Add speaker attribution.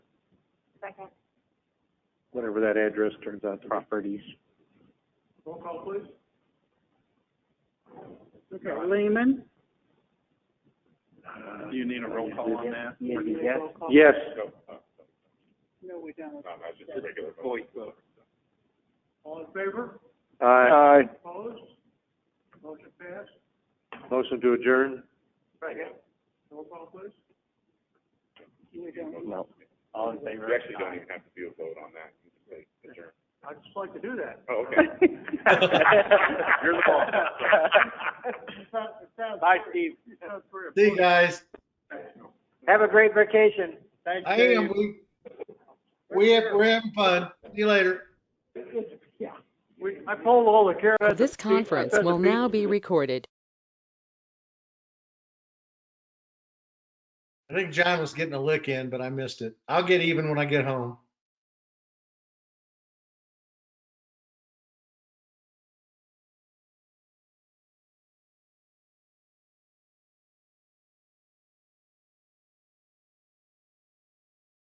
Speaker 1: Second.
Speaker 2: whatever that address turns out to be.
Speaker 3: properties.
Speaker 2: Roll call, please.
Speaker 4: Okay, Lehman,
Speaker 3: Do you need a roll call on that?
Speaker 4: yes.
Speaker 2: Yes.
Speaker 4: no, we don't.
Speaker 2: All in favor? Aye. Opposed? Motion passed. Motion to adjourn? Second. Roll call, please.
Speaker 3: No.
Speaker 2: All in favor? You actually don't even have to do a vote on that. I'd just like to do that. Oh,
Speaker 3: You're the boss.
Speaker 2: Bye, Steve.
Speaker 5: See you guys.
Speaker 4: Have a great vacation. Thanks,
Speaker 5: I am, we, we have, we're having fun. See you later.
Speaker 2: We, I pulled all the carrots. at
Speaker 6: This
Speaker 2: the feet- I
Speaker 6: conference
Speaker 2: said the
Speaker 6: will
Speaker 2: feet-
Speaker 6: now be recorded.
Speaker 5: I think John was getting a lick in, but I missed it. I'll get even when I get home.